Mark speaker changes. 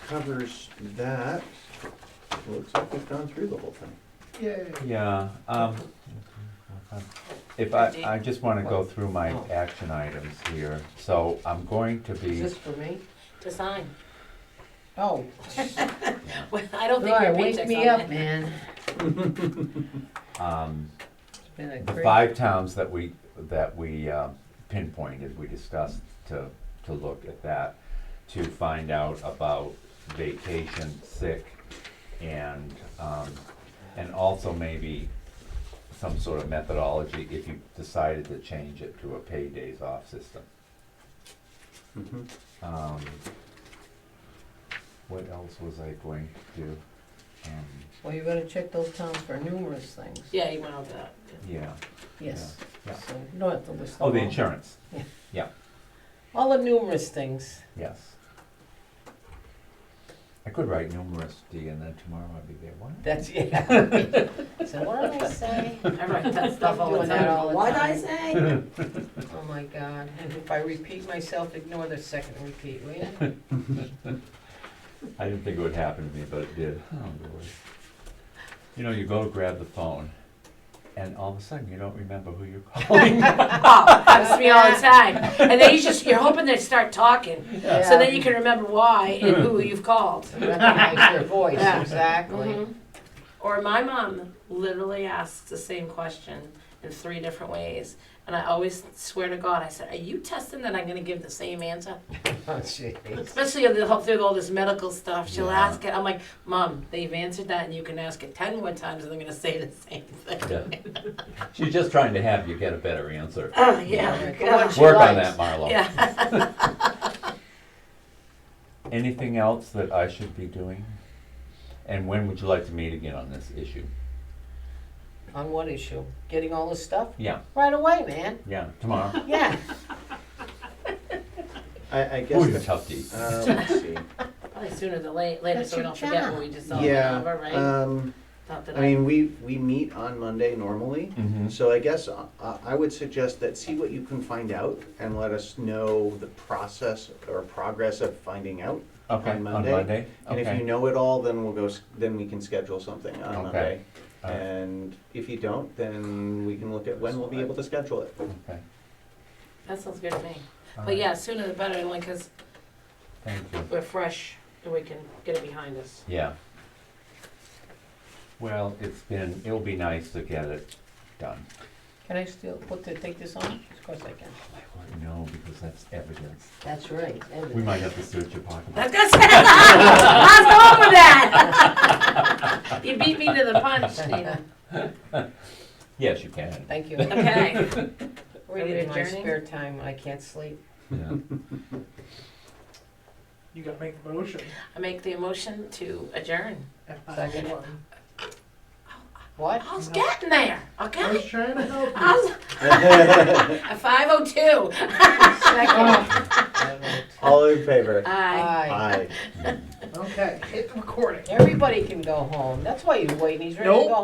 Speaker 1: covers that. Looks like we've gone through the whole thing.
Speaker 2: Yay.
Speaker 3: Yeah, um, if I, I just wanna go through my action items here, so I'm going to
Speaker 2: Is
Speaker 3: be,
Speaker 2: this for me?
Speaker 4: to sign.
Speaker 2: Oh,
Speaker 4: Well, I don't think
Speaker 2: Laura,
Speaker 4: your
Speaker 2: wake
Speaker 4: paycheck's
Speaker 2: me
Speaker 4: on
Speaker 2: up,
Speaker 4: that.
Speaker 2: man.
Speaker 3: um,
Speaker 2: It's been a
Speaker 3: the
Speaker 2: crazy-
Speaker 3: five towns that we, that we um, pinpointed, we discussed to, to look at that, to find out about vacation, sick, and, um, and also maybe some sort of methodology if you decided to change it to a paid days off system.
Speaker 1: Mhm.
Speaker 3: Um, what else was I going to do? Um,
Speaker 2: Well, you're gonna check those towns for numerous things.
Speaker 4: Yeah, you went out to that.
Speaker 3: yeah.
Speaker 2: Yes,
Speaker 3: yeah.
Speaker 2: so you don't have to list them
Speaker 3: Oh, the
Speaker 2: all.
Speaker 3: insurance.
Speaker 2: All the numerous things.
Speaker 3: Yes. I could write numerous D and then tomorrow I'd be there. What?
Speaker 2: That's, yeah. So what did I say?
Speaker 4: I write that stuff all the
Speaker 2: Doing that all the
Speaker 4: time. What'd I
Speaker 2: time.
Speaker 4: say?
Speaker 2: Oh, my God. And if I repeat myself, ignore the second repeat, will you?
Speaker 3: I didn't think it would happen to me, but it did. Oh, Lord. You know, you go to grab the phone and all of a sudden you don't remember who you're calling.
Speaker 4: Oh, happens to me all the time. And then you just, you're hoping they start talking, so then you can remember why and who you've called.
Speaker 2: Recognize their voice,
Speaker 4: Yeah.
Speaker 2: exactly.
Speaker 4: Mhm. Or my mom literally asks the same question in three different ways. And I always swear to God, I said, Are you testing that I'm going to give the same answer?
Speaker 2: Oh, jeez.
Speaker 4: Especially with the whole- through all this medical stuff. She'll
Speaker 3: Yeah.
Speaker 4: ask it. I'm like, Mom, they've answered that, and you can ask it 10 more times, and they're going to say the same thing.
Speaker 3: Yeah. She's just trying to have you get a better answer.
Speaker 4: Oh,
Speaker 2: Yeah,
Speaker 4: yeah.
Speaker 2: go on.
Speaker 4: God.
Speaker 2: She
Speaker 3: Work on
Speaker 2: likes.
Speaker 3: that, Marlo.
Speaker 4: Yeah.
Speaker 3: Anything else that I should be doing? And when would you like to meet again on this issue?
Speaker 2: On what issue? Getting all this stuff?
Speaker 3: Yeah,
Speaker 2: Right away, man.
Speaker 3: yeah, tomorrow.
Speaker 2: Yeah.
Speaker 1: I, I
Speaker 3: Ooh,
Speaker 1: guess,
Speaker 3: you
Speaker 1: the-
Speaker 3: tough D.
Speaker 1: uh, let's see.
Speaker 4: Probably sooner than late, later,
Speaker 2: That's
Speaker 4: so we
Speaker 2: your
Speaker 4: don't forget
Speaker 2: job.
Speaker 4: what we just saw.
Speaker 1: Yeah,
Speaker 4: Whatever, right?
Speaker 1: um,
Speaker 4: Not that
Speaker 1: I mean, we, we meet on Monday normally.
Speaker 3: Mhm.
Speaker 1: So I guess uh, I would suggest that see what you can find out and let us know the process or progress of finding out.
Speaker 3: Okay,
Speaker 1: On
Speaker 3: on
Speaker 1: Monday?
Speaker 3: Monday?
Speaker 1: And if you
Speaker 3: Okay.
Speaker 1: know it all, then we'll go, s- then we can schedule something on
Speaker 3: Okay.
Speaker 1: Monday.
Speaker 3: All right,
Speaker 1: And if you don't, then we can look at when we'll be able to schedule it.
Speaker 3: okay.
Speaker 4: that sounds good to me.
Speaker 3: All
Speaker 4: But
Speaker 3: right,
Speaker 4: yeah, sooner the better, only because
Speaker 3: Thank you.
Speaker 4: we're fresh and we can get it behind us.
Speaker 3: Yeah. Well, it's been, it'll be nice to get it done.
Speaker 2: Can I still put the, take this on? Of course I can.
Speaker 3: No, because that's evidence.
Speaker 2: That's right.
Speaker 3: We might have to search your pocketbook.
Speaker 4: That's good. How's going with that? you beat me to the punch, Nina.
Speaker 3: Yes, you can.
Speaker 2: Thank you.
Speaker 4: Okay.
Speaker 2: Reading in my
Speaker 4: adjourning?
Speaker 2: spare time, I can't sleep.
Speaker 3: Yeah.
Speaker 5: You gotta make the motion.
Speaker 4: I make the motion to adjourn.
Speaker 2: Second.
Speaker 5: I
Speaker 2: What?
Speaker 4: I was getting there,
Speaker 5: was
Speaker 4: okay?
Speaker 5: trying to help
Speaker 4: I
Speaker 5: you.
Speaker 4: was at 502.
Speaker 2: Second.
Speaker 1: All in favor?
Speaker 2: Aye.
Speaker 4: Aye.
Speaker 1: Aye.
Speaker 5: Okay, hit the recording.
Speaker 2: Everybody can go home. That's why he's waiting. He's ready to
Speaker 5: Nope.
Speaker 2: go